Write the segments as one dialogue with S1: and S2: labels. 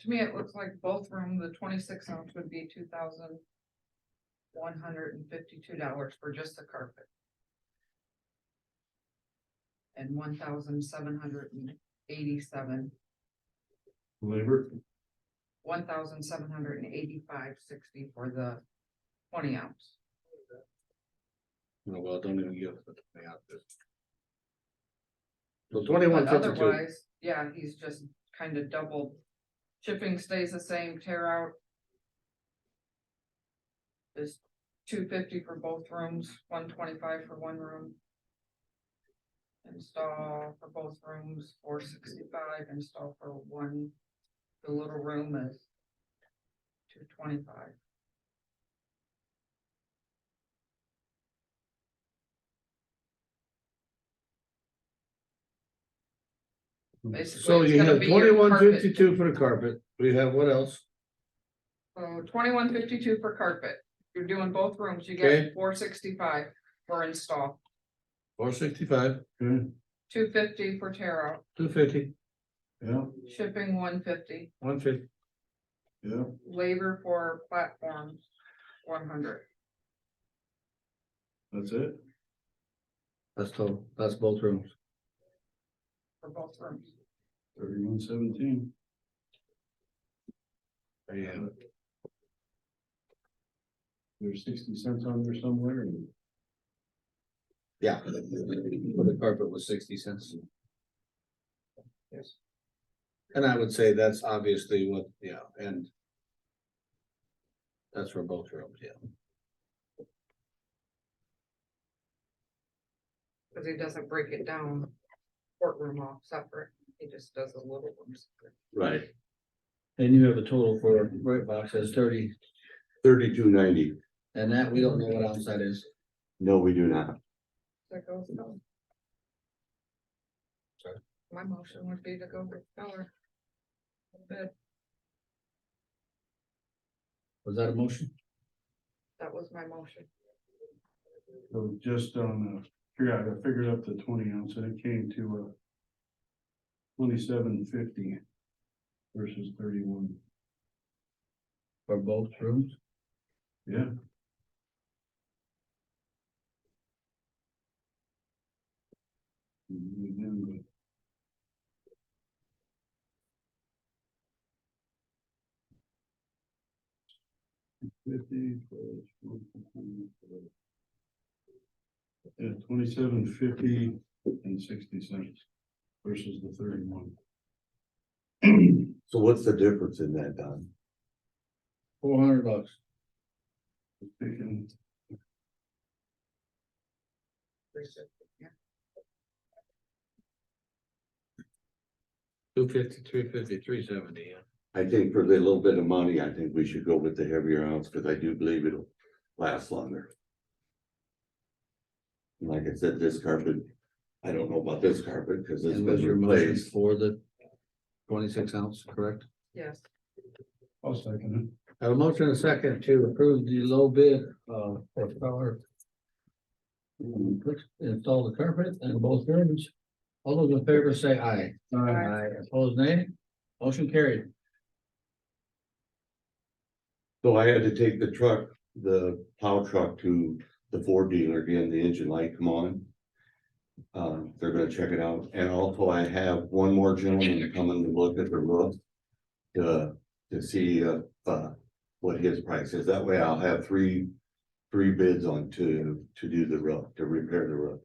S1: to me, it looks like both room, the twenty-six ounce would be two thousand one hundred and fifty-two dollars for just the carpet. And one thousand seven hundred and eighty-seven,
S2: Labor,
S1: one thousand seven hundred and eighty-five sixty for the twenty ounce.
S2: no, well, don't even give us the twenty out there. So twenty-one
S1: But
S2: fifty-two,
S1: Otherwise, yeah, he's just kind of doubled. Chipping stays the same, tear out. Is two fifty for both rooms, one twenty-five for one room. Install for both rooms, four sixty-five, install for one, the little room is two twenty-five. basically,
S2: Hmm. so
S1: it's
S2: you
S1: gonna
S2: have
S1: be your
S2: twenty-one
S1: carpet.
S2: fifty-two for the carpet, we have what else?
S1: So Oh, twenty-one fifty-two for carpet, you're doing both rooms, you
S2: Okay.
S1: get four sixty-five for install,
S2: Four sixty-five,
S1: two fifty for tear out,
S2: two fifty,
S3: Yeah,
S1: shipping one fifty.
S2: one fifty,
S3: yeah,
S1: labor for platforms, one hundred.
S3: that's it.
S2: that's total, that's both rooms.
S1: For both rooms.
S3: Thirty-one seventeen.
S2: There you have it.
S3: There's sixty cents on there somewhere. and-
S2: Yeah. For The carpet was sixty cents.
S1: Yes.
S2: And I would say that's obviously what, yeah, and. That's for both rooms, yeah.
S1: Cause he doesn't break it down, courtroom off separate, he just does a little one separate.
S2: Right.
S4: And you have a total for right box is thirty,
S5: Thirty-two ninety.
S4: and that we don't know what else that is.
S5: No, we do not.
S1: That goes down.
S2: Sorry.
S1: My motion would be to go with Feller. But
S4: Was that a motion?
S1: that was my motion.
S3: So just on, uh, figure out, I figured up the twenty ounce and it came to, uh. Twenty-seven fifty versus thirty-one,
S4: For both rooms?
S3: yeah. Mhm, again, but- Fifty plus one fifty plus- Yeah, twenty-seven fifty and sixty cents versus the thirty-one.
S5: So what's the difference in that, Don?
S4: Four hundred bucks.
S3: Taking
S2: Two fifty-three, fifty-three, seventy, yeah.
S5: I think for the little bit of money, I think we should go with the heavier ounce, because I do believe it'll last longer. And Like I said, this carpet, I don't know about this carpet, because it's
S4: And was
S5: been
S4: your motion
S5: replaced.
S4: for the twenty-six ounce, correct?
S1: Yes,
S3: I'll second
S4: I have a motion and a second to approve the low bid, uh, for power. Install the carpet in both rooms. All those in favor say aye.
S3: it.
S1: Aye.
S4: Opposed nay? Motion carried.
S5: So I had to take the truck, the plow truck to the Ford dealer, again, the engine light come on. Uh, they're gonna check it out, and also I have one more gentleman coming to look at the roof. To, to see, uh, uh, what his price is, that way I'll have three, three bids on to, to do the roof, to repair the roof.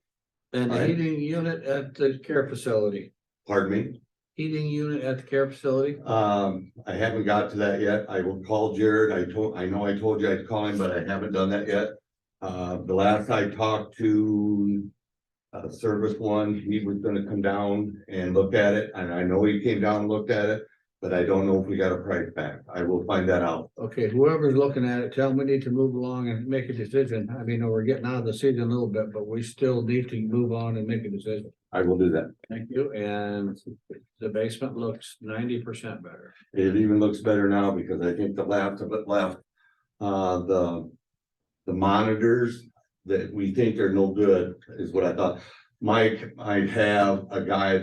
S4: And the
S5: Aye.
S4: heating unit at the care facility,
S5: Pardon me?
S4: heating unit at the care facility?
S5: Um, I haven't got to that yet. I will call Jared. I told, I know I told you I'd call him, but I haven't done that yet. Uh, the last I talked to uh, Service One, he was gonna come down and look at it, and I know he came down and looked at it, but I don't know if we got a price back. I will find that out.
S4: Okay, whoever's looking at it, tell them we need to move along and make a decision. I mean, we're getting out of the season a little bit, but we still need to move on and make a decision.
S5: I will do that.
S4: Thank you, and the basement looks ninety percent better.
S5: It even looks better now because I think the last of it left, uh, the. The monitors that we think are no good is what I thought. Mike, I have a guy